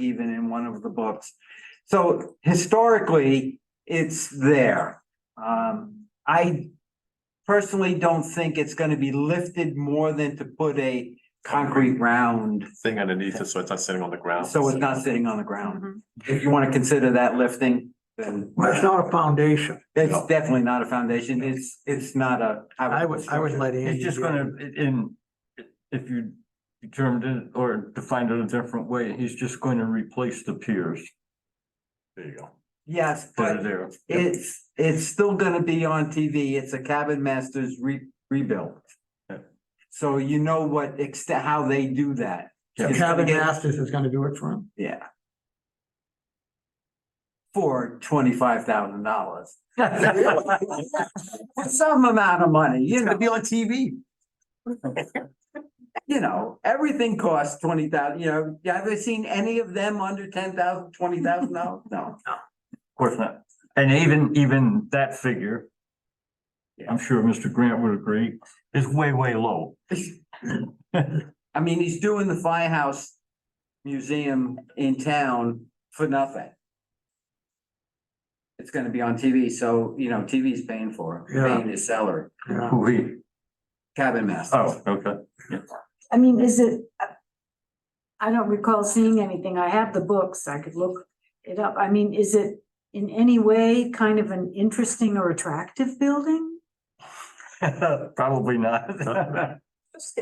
even in one of the books. So historically, it's there. Um, I personally don't think it's gonna be lifted more than to put a concrete round, thing underneath it, so it's not sitting on the ground. so it's not sitting on the ground. If you wanna consider that lifting, then Well, it's not a foundation. it's definitely not a foundation. It's, it's not a. I would, I would let Andy. It's just do it. gonna, i- in, if you determined it or defined it a different way, he's just going to replace the piers There you go. Yes, that are but there. it's, it's still gonna be on TV. It's a Cabin Masters re- rebuild. Yeah. So you know what extent, how they do that. The It's Cabin gonna get- Masters is gonna do it for him. Yeah. For twenty-five thousand dollars. Some amount of money, you know, be on TV. you know, everything costs twenty thousand, you know, you ever seen any of them under ten thousand, twenty thousand dollars? No. Of course not. And even, even that figure, I'm sure Mr. Grant would agree, is way, way low. I mean, he's doing the firehouse museum in town for nothing. It's gonna be on TV, so, you know, TV's paying for it, Yeah. paying his salary, Yeah. Who he, cabin master. oh, okay. I mean, is it? I don't recall seeing anything. I have the books. I could look it up. I mean, is it in any way kind of an interesting or attractive building? Probably not.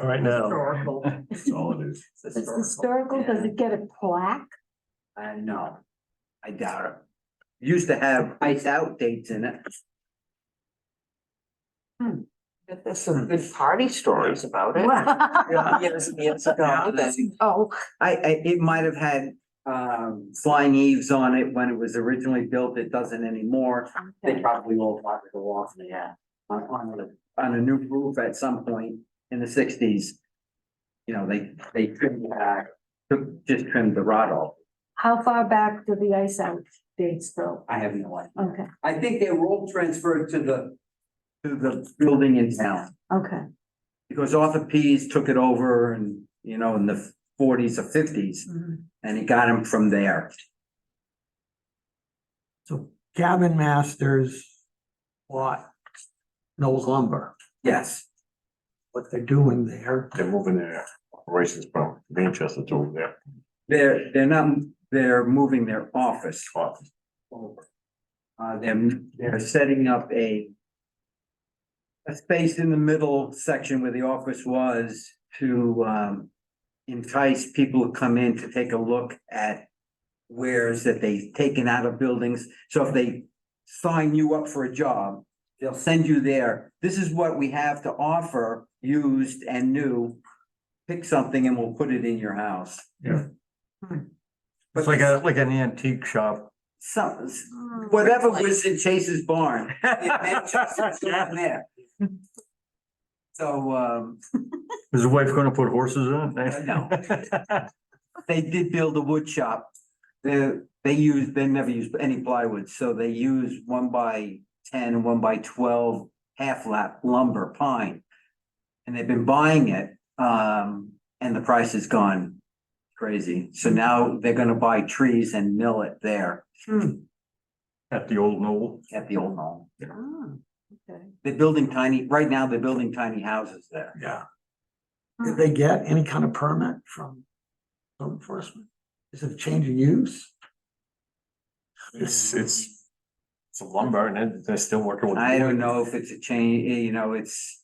Right now. Historical. That's all it is. It's historical. Does it get a plaque? I know. I doubt it. Used to have ice out dates in it. Hmm. There's some good party stories about it. Wow. Years and years Yeah, ago. that's- Oh, I, I, it might have had, um, flying eaves on it when it was originally built. It doesn't anymore. They okay. probably all part of the off Yeah. on, on a, on a new roof at some point in the sixties. You know, they, they trimmed it back, took- just trimmed the rod off. how far back do the ice out dates go? I have no idea. Okay, I think they were all transferred to the, to the building in town. okay. Because Arthur Pease took it over and, you know, in the forties or fifties, Mhm. and he got him from there. So Cabin Masters lot, no lumber, Yes, what they're doing there. They're moving their operations from Manchester to over there. they're, they're not, they're moving their office Office. over. Uh, they're, they're setting up a a space in the middle section where the office was to, um, entice people to come in to take a look at wares that they've taken out of buildings. So if they sign you up for a job, they'll send you there. This is what we have to offer, used and new. Pick something and we'll put it in your house. Yeah. Hmm. It's like a, like an antique shop. Some, Oh, whatever was in Chase's barn. it meant Chase's Is down there. So, um, his wife gonna put horses in it? eh? No. they did build a wood shop. They, they used, they never used any plywood, so they used one by ten and one by twelve half lap lumber pine. And they've been buying it, um, and the price has gone crazy. So now they're gonna buy trees and mill it there At the old Knoll. at the old home. Ah, okay. They're building tiny, right now they're building tiny houses there. Yeah. Did they get any kind of permit from code enforcement? Is it a change of use? It's, it's, it's a lumber and then they're still working with. I don't wood. know if it's a change, you know, it's,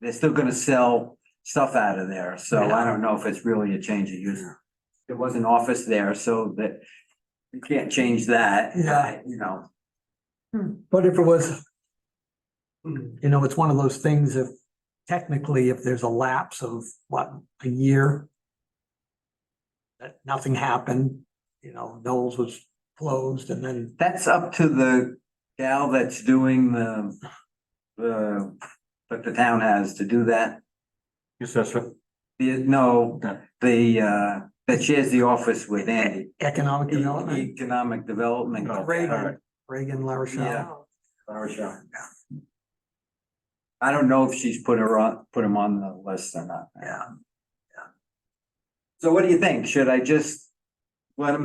they're still gonna sell stuff out of there, so I don't know if it's really a change of use. There was an office there, so that, you can't change that, Yeah. you know. But if it was, you know, it's one of those things if technically if there's a lapse of what, a year? That nothing happened, you know, Knowles was closed and then, That's up to the gal that's doing the, the, that the town has to do that. Yes, that's right. The- No, Okay. the, uh, that shares the office with Andy. economic development, Economic Development. Oh, all right. Reagan, Reagan LaRochelle. Yeah. I don't know if she's put her on, put him on the list or not. Yeah. So what do you think? Should I just let them